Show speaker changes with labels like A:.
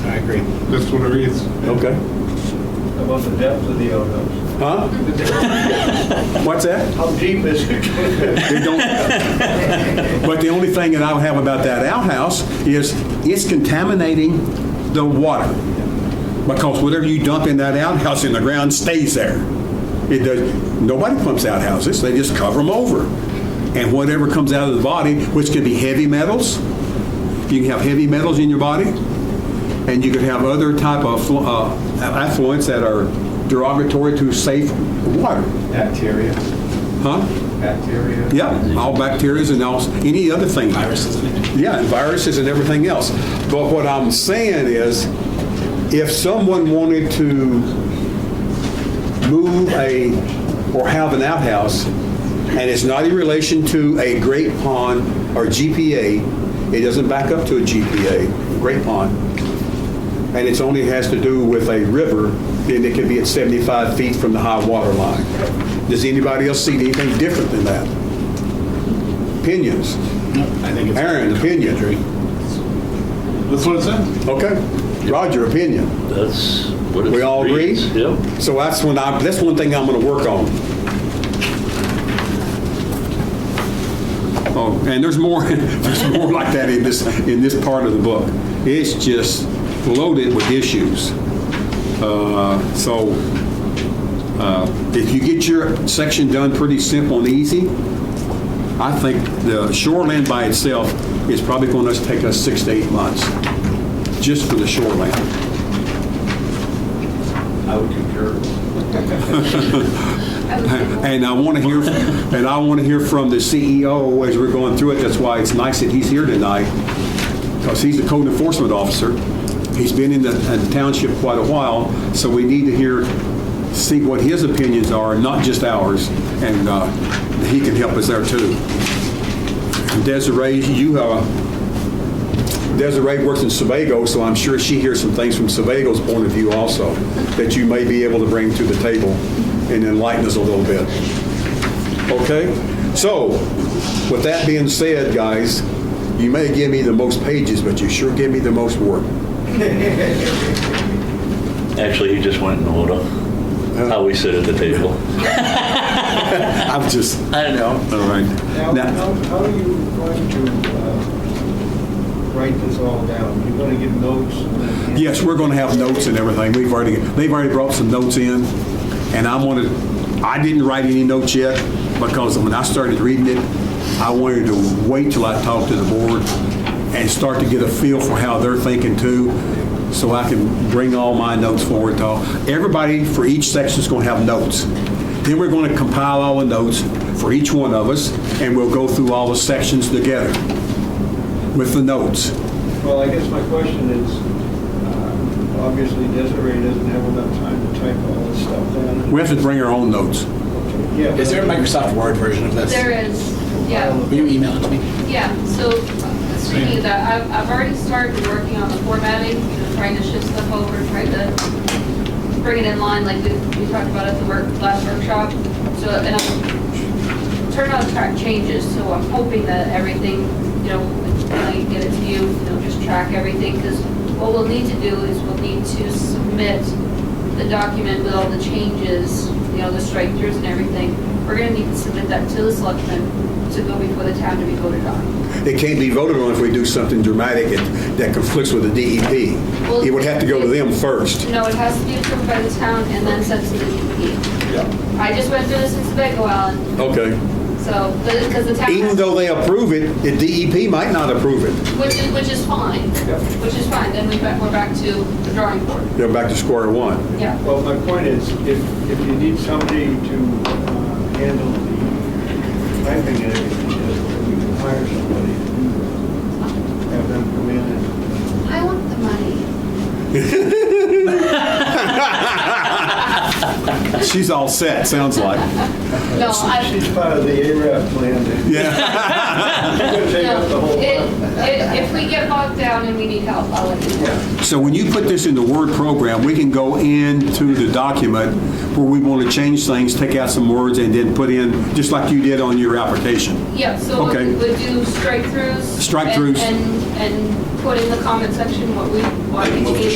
A: concrete.
B: That's what it is.
A: Okay.
C: How About the depth of the outhouse.
A: Huh? What's that?
C: How deep is it?
A: They don't, but the only thing that I have about that outhouse is it's contaminating the water. Because whatever you dump in that outhouse in the ground stays there. It does, nobody pumps outhouses, they just cover them over. And whatever comes out of the body, which could be heavy metals, you can have heavy metals in your body, and you could have other type of flu- uh, affluents that are derogatory to safe water.
C: Bacteria,
A: Huh?
C: bacteria.
A: Yeah, all bacteria and all, any other thing. Viruses and... Yeah, and viruses and everything else. But what I'm saying is, if someone wanted to move a, or have an outhouse, and it's not in relation to a great pond or GPA, it doesn't back up to a GPA, great pond, and it's only has to do with a river, then it could be at 75 feet from the high water line. Does anybody else see anything different than that? Opinions?
B: I think
A: Aaron, opinion.
B: That's what it says.
A: Okay. Roger, opinion.
D: That's what it
A: We all agree?
D: reads. Yep.
A: So that's when I, that's one thing I'm going to work on. Oh, and there's more, there's more like that in this, in this part of the book. It's just loaded with issues. Uh, So uh, if you get your section done pretty simple and easy, I think the shoreline by itself is probably going to take us six to eight months, just for the shoreline.
C: I would concur.
A: And I want to hear, and I want to hear from the CEO as we're going through it. That's why it's nice that he's here tonight, because he's the code enforcement officer. He's been in the in the township quite a while, so we need to hear, see what his opinions are, not just ours, and uh, he can help us there too. Desiree, you, uh, Desiree works in Sebago, so I'm sure she hears some things from Sebago's point of view also, that you may be able to bring to the table and enlighten us a little bit. Okay? So, with that being said, guys, you may give me the most pages, but you sure give me the most work.
D: Actually, you just went in order. How we sit at the table.
A: I'm just,
D: I don't know.
A: all right.
C: Now,
A: Now,
C: how, how are you going to uh, write this all down? You're going to give notes? and then-
A: yes, we're going to have notes and everything. We've already, they've already brought some notes in, and I'm going to, I didn't write any notes yet, because when I started reading it, I wanted to wait till I talked to the board and start to get a feel for how they're thinking too, so I can bring all my notes forward to all. Everybody for each section is going to have notes. Then we're going to compile all the notes for each one of us, and we'll go through all the sections together with the notes.
C: Well, I guess my question is, uh, obviously Desiree doesn't have enough time to type all this stuff down.
A: We have to bring our own notes.
C: Yeah,
E: Is there a
C: but-
E: Microsoft Word version of this?
F: There is, yeah,
E: Will you email it to me?
F: yeah, so uh, speaking of that, I've, I've already started working on the formatting, you know, trying to shift stuff over, trying to bring it in line like we, we talked about at the work, last workshop. So, and I'm turn on track changes, so I'm hoping that everything, you know, when I get it to you, you know, just track everything, because what we'll need to do is we'll need to submit the document with all the changes, you know, the strike throughs and everything. We're gonna need to submit that to the selectmen to go before the town to be voted on.
A: It can't be voted on if we do something dramatic that- that conflicts with the DEP. It would have to go to them first.
F: No, it has to be approved by the town and then sent to the DEP. I just went through this in Sebago, Alan,
A: Okay.
F: so, because the town.
A: Even
F: has-
A: though they approve it, the DEP might not approve it.
F: Which is, which is fine, which is fine, then we back- we're back to the drawing board,
A: They're back to square one.
F: yeah.
C: Well, my point is, if, if you need somebody to uh, handle the typing and everything, we can hire somebody to do that. Have them come in and,
F: I want the money.
A: She's all set, sounds like.
F: No, I,
C: she's part of the ARAP plan. She's
A: Yeah.
C: gonna take up the
F: no,
C: whole.
F: it, it, if we get bogged down and we need help, I'll let you know.
A: So when you put this in the Word program, we can go into the document where we want to change things, take out some words, and then put in, just like you did on your application.
F: Yeah, so
A: Okay.
F: we would do strike throughs.
A: Strike
F: and-
A: throughs.
F: And, and put in the comment section what we want each meeting